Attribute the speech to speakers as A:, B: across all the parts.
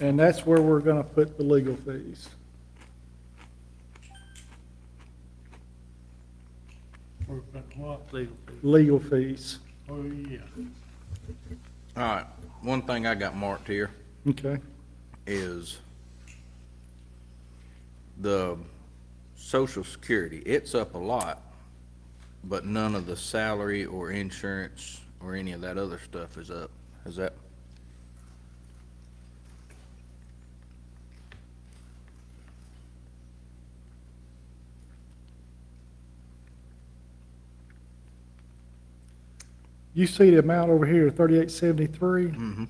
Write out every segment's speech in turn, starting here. A: And that's where we're gonna put the legal fees.
B: Or, but what, legal fees?
A: Legal fees,
B: Oh, yeah.
C: All right, one thing I got marked here
A: okay?
C: is the social security. It's up a lot, but none of the salary or insurance or any of that other stuff is up. Is that,
A: You see the amount over here, thirty-eight seventy-three?
C: mm-hmm.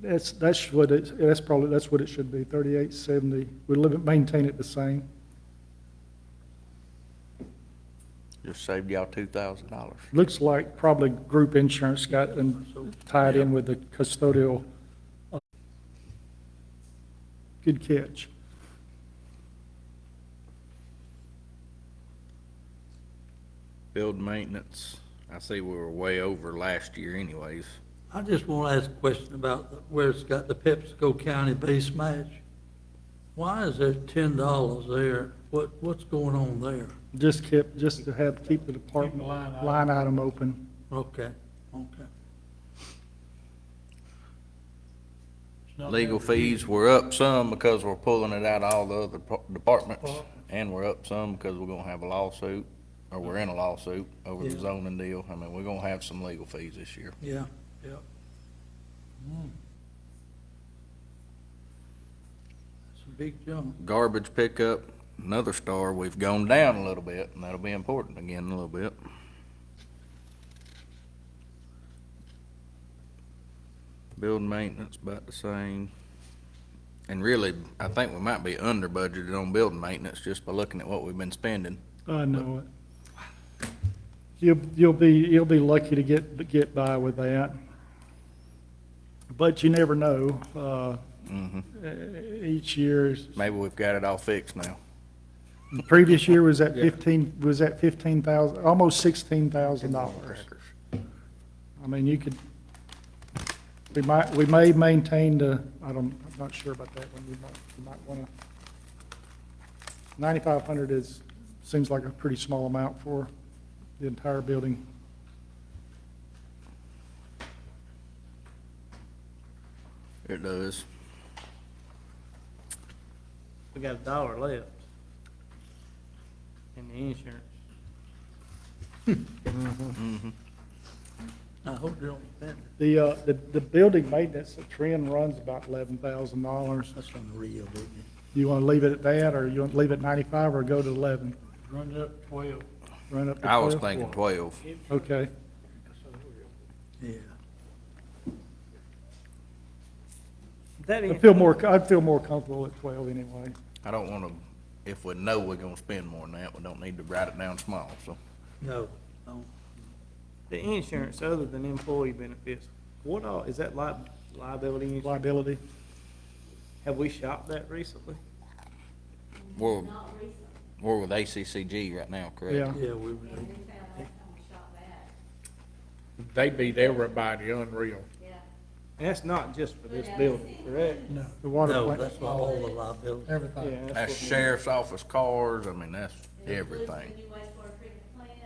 A: That's, that's what it, that's probably, that's what it should be, thirty-eight seventy. We live it, maintain it the same.
C: just saved y'all two thousand dollars?
A: Looks like probably group insurance got in- tied in with the custodial. Good catch.
C: Build maintenance, I see we were way over last year anyways.
D: I just want to ask a question about where it's got the PepsiCo County base match. Why is there ten dollars there? What, what's going on there?
A: Just kept, just to have, keep the
B: Keep
A: department
B: the line item.
A: line item open.
D: Okay, okay.
B: It's not
C: Legal
B: that big.
C: fees, we're up some because we're pulling it out of all the other pro- departments, and we're up some because we're gonna have a lawsuit, or we're in a lawsuit over the
D: Yeah.
C: zoning deal. I mean, we're gonna have some legal fees this year.
D: Yeah, yeah. Hmm. That's a big jump.
C: Garbage pickup, another star, we've gone down a little bit, and that'll be important again in a little bit. Building maintenance about the same. And really, I think we might be under budgeted on building maintenance just by looking at what we've been spending.
A: I know it. You'll, you'll be, you'll be lucky to get, to get by with that. But you never know. Uh,
C: Mhm.
A: e- each year,
C: Maybe we've got it all fixed now.
A: the previous year was at fifteen, was at fifteen thousand, almost sixteen thousand dollars. I mean, you could, we might, we may maintain the, I don't, I'm not sure about that one, we might, we might wanna. Ninety-five hundred is, seems like a pretty small amount for the entire building.
C: It does.
E: We got a dollar left in the insurance.
D: I hope they don't spend it.
A: The, uh, the, the building maintenance, the trend runs about eleven thousand dollars.
D: That's unreal, isn't it?
A: You wanna leave it at that, or you wanna leave it at ninety-five, or go to eleven?
B: Runs up twelve.
A: Run up to
C: I was
A: 12?
C: thinking twelve.
A: Okay,
D: Yeah.
E: That
A: I
E: in-
A: feel more, I'd feel more comfortable at twelve anyway.
C: I don't wanna, if we know we're gonna spend more than that, we don't need to write it down small, so.
D: No, no.
E: The insurance, other than employee benefits, what all, is that li- liability insurance?
A: Liability,
E: Have we shopped that recently?
C: We're, we're with ACCG right now, correct?
A: yeah.
D: Yeah, we were.
F: We found last time we shot that,
G: They beat everybody unreal.
F: yeah.
E: And that's not just for this building, correct?
A: The water
D: No,
A: plant.
D: that's not all the liability.
B: Everything.
E: Yeah,
C: That's
E: what we-
C: sheriff's office cars, I mean, that's
F: It includes
C: everything.
F: the new wastewater treatment plant, it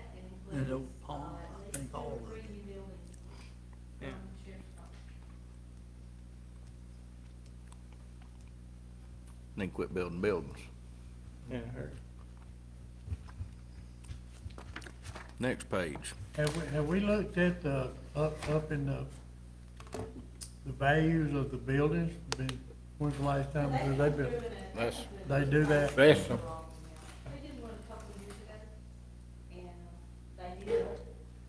D: And the
F: includes,
D: old
F: uh,
D: pond, I
F: at
D: think
F: least two
D: all
F: or
D: of
F: three
D: it.
F: new buildings.
E: Yeah.
F: um, sheriff's department.
C: Need to quit building buildings.
E: Yeah, I heard.
C: Next page.
B: Have we, have we looked at the, up, up in the, the values of the buildings? Been- When's the last time
F: They
B: that they built?
F: doing a-
C: That's-
B: They do that?
G: Bless them.
F: They did one a couple of years ago, and uh, they did,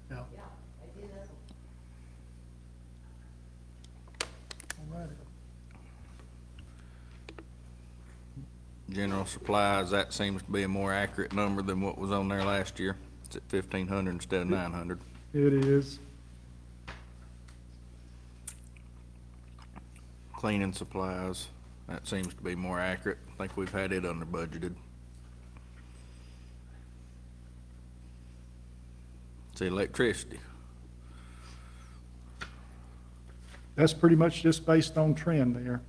B: Yeah. All
F: yeah, they did that.
B: right.
C: General supplies, that seems to be a more accurate number than what was on there last year. It's at fifteen hundred instead of nine hundred.
A: It is.
C: Cleaning supplies, that seems to be more accurate. I think we've had it under budgeted. It's electricity.
A: That's pretty much just based on trend there.